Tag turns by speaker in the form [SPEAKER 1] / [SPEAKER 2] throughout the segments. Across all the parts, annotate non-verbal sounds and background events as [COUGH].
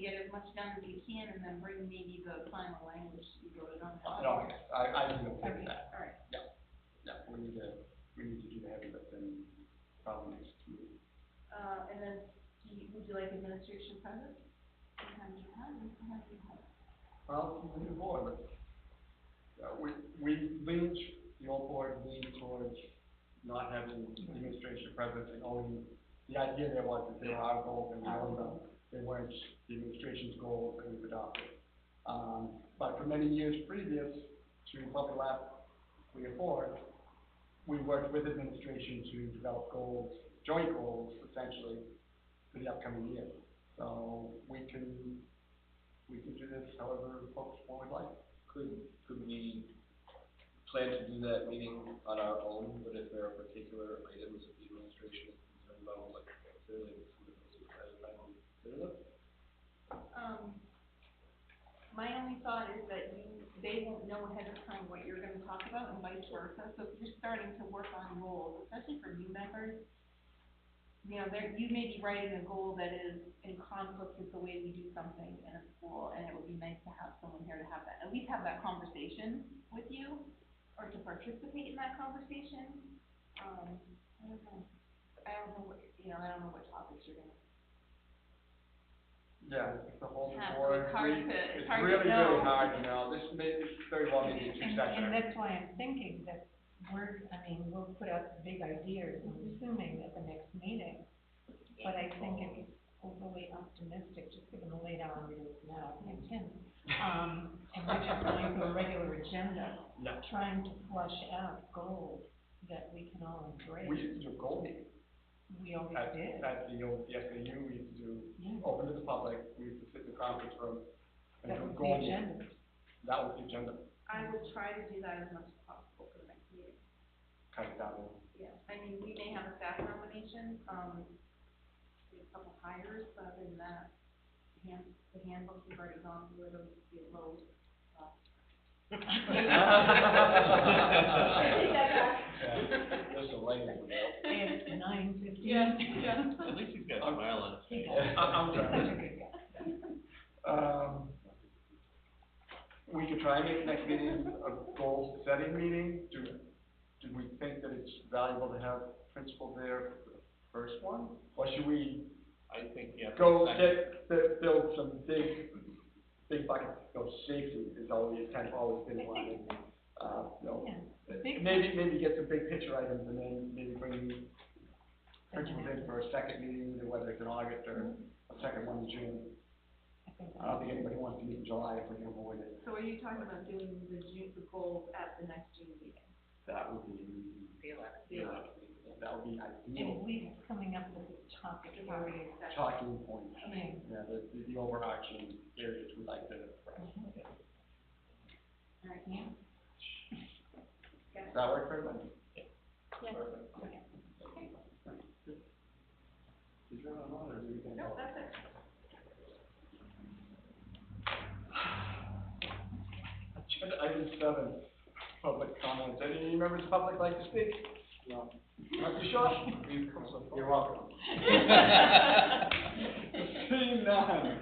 [SPEAKER 1] get as much done as you can and then bring maybe the final language to be voted on.
[SPEAKER 2] I don't, I, I have no problem
[SPEAKER 1] Okay,
[SPEAKER 2] with that,
[SPEAKER 1] all right,
[SPEAKER 2] no, we need to, we need to do the heavy lifting probably next meeting.
[SPEAKER 1] uh, and then, do you, would you like administration present? Sometimes you have, and sometimes you have.
[SPEAKER 2] Well, we need a board, but, uh, we, we lean, the old board leaned towards not having administration present and only, the idea there was that there are goals and we own them, they weren't the administration's goals that we've adopted. Um, but for many years previous to probably last three or four, we worked with administration to develop goals, joint goals essentially, for the upcoming year. So we can we can do this however folks would like.
[SPEAKER 3] Could, could we plan to do that meeting on our own, but if there are particular items that the administration is concerned about, like, clearly, it's something that's decided by them, consider them?
[SPEAKER 1] Um, my only thought is that you, they won't know ahead of time what you're gonna talk about and vice versa, so if you're starting to work on goals, especially for new members, you know, there, you may be writing a goal that is in conflict with the way we do something in a school, and it would be nice to have someone here to have that, at least have that conversation with you, or to participate in that conversation, um, I don't know, I don't know what, you know, I don't know what topics you're gonna
[SPEAKER 2] Yeah, it's a whole
[SPEAKER 1] Yeah, so
[SPEAKER 2] board.
[SPEAKER 1] it's hard
[SPEAKER 2] meeting.
[SPEAKER 1] to- it's
[SPEAKER 2] It's
[SPEAKER 1] hard to
[SPEAKER 2] really, really
[SPEAKER 1] know.
[SPEAKER 2] hard to know. This may, it's very well maybe two
[SPEAKER 4] And,
[SPEAKER 2] sessions.
[SPEAKER 4] and that's why I'm thinking that we're, I mean, we'll put out some big ideas, I'm assuming at the next meeting. But I think it's overly optimistic, just given the late hour it is now, I think, ten. Um, and we're just going through a regular agenda,
[SPEAKER 2] No.
[SPEAKER 4] trying to flush out goals that we can all embrace.
[SPEAKER 2] We used to do a goal meeting
[SPEAKER 4] Oh, We always
[SPEAKER 2] at,
[SPEAKER 4] did,
[SPEAKER 2] at the old, the SAU, we used to do,
[SPEAKER 4] yeah.
[SPEAKER 2] open to the public, we used to sit in the conference room and
[SPEAKER 4] That
[SPEAKER 2] do a
[SPEAKER 4] was
[SPEAKER 2] goal
[SPEAKER 4] the
[SPEAKER 2] meeting. [LAUGHS]
[SPEAKER 4] agenda.
[SPEAKER 2] That was the agenda,
[SPEAKER 1] I will try to do that as much as possible for the next meeting.
[SPEAKER 2] kind of down there.
[SPEAKER 1] Yeah. I mean, we may have a staff nomination, um, we have a couple hires, but other than that, the hand, the handbook, we've already gone through it, it'll be a load. uh,
[SPEAKER 2] Um,
[SPEAKER 3] There's some lighting, you know?
[SPEAKER 4] It's nine fifteen.
[SPEAKER 5] At least he's got
[SPEAKER 2] Okay.
[SPEAKER 5] a smile on his face.
[SPEAKER 4] He does.
[SPEAKER 2] I- I'm
[SPEAKER 4] He's
[SPEAKER 2] sorry.
[SPEAKER 4] such a good guy.
[SPEAKER 2] Um, we could try and make next meeting a goal setting meeting, do, do we think that it's valuable to have principal there for the first one? Or should we
[SPEAKER 5] I think, yeah.
[SPEAKER 2] go
[SPEAKER 5] I-
[SPEAKER 2] get, bu- build some big, big buckets, go safety is always, kind of always been one, and, uh, you know,
[SPEAKER 4] Yeah. Big
[SPEAKER 2] Maybe, maybe get some big picture items and then maybe bring principals in for a second meeting, either whether it's in August or a second one in June.
[SPEAKER 4] I think
[SPEAKER 2] I don't think anybody wants to meet in July if we can avoid it.
[SPEAKER 1] So are you talking about doing the June, the goals at the next June meeting?
[SPEAKER 2] That would be,
[SPEAKER 1] The-
[SPEAKER 2] that would be
[SPEAKER 4] At
[SPEAKER 2] ideal,
[SPEAKER 4] least coming up with a topic area. [LAUGHS]
[SPEAKER 2] talking points,
[SPEAKER 4] Yeah.
[SPEAKER 2] yeah, the, the- the overarching areas we like to address.
[SPEAKER 1] All right,
[SPEAKER 4] Yeah.
[SPEAKER 1] got
[SPEAKER 2] Does
[SPEAKER 1] it.
[SPEAKER 2] that work for everybody?
[SPEAKER 1] Yeah.
[SPEAKER 2] Perfect.
[SPEAKER 1] Okay.
[SPEAKER 2] Did you run on or did you?
[SPEAKER 1] No, that's it.
[SPEAKER 2] Agenda item seven, public comments. Any members of the public like to speak? No. Dr. Shaw?
[SPEAKER 3] We've come so far.
[SPEAKER 2] You're welcome. Seeing none,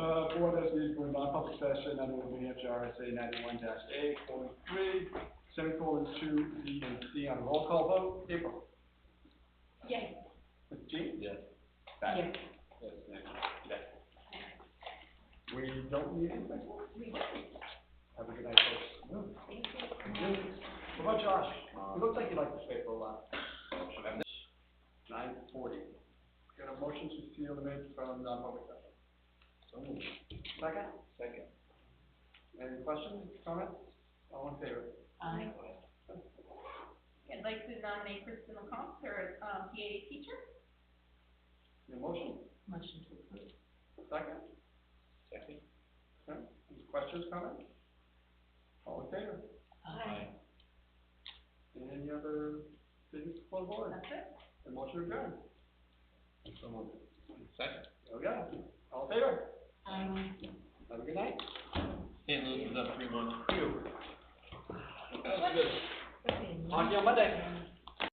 [SPEAKER 2] uh, board has been going non-public session under the New Hampshire RSA ninety-one dash A, colon, three, semicolon, two, B and C on a roll call vote. April?
[SPEAKER 1] Yay.
[SPEAKER 2] Jean?
[SPEAKER 3] Yes.
[SPEAKER 2] Pat?
[SPEAKER 4] Yes.
[SPEAKER 2] Yes, Nick? Yes. We don't need anybody.
[SPEAKER 1] We done.
[SPEAKER 2] Have a good night, folks.
[SPEAKER 1] Thank you.
[SPEAKER 2] What about Josh? It looks like you'd like to stay for a while. Nine forty. Got a motion to seal the minutes from non-public session.
[SPEAKER 3] So moved.
[SPEAKER 2] Second,
[SPEAKER 3] Second.
[SPEAKER 2] any questions, comments? All in favor?
[SPEAKER 4] I-
[SPEAKER 1] I'd like to nominate Kristen McComb for, um, PA teacher.
[SPEAKER 2] Your motion,
[SPEAKER 4] motion to approve.
[SPEAKER 2] second,
[SPEAKER 3] Second.
[SPEAKER 2] Okay. any questions, comments? All in favor?
[SPEAKER 4] Aye.
[SPEAKER 2] Any other business before the board?
[SPEAKER 1] That's it.
[SPEAKER 2] The motion adjourned.
[SPEAKER 3] So moved. Second.
[SPEAKER 2] There we go. All in favor?
[SPEAKER 4] Aye.
[SPEAKER 2] Have a good night.
[SPEAKER 5] St. Louis is up three months. Phew.
[SPEAKER 2] Talk to you on Monday.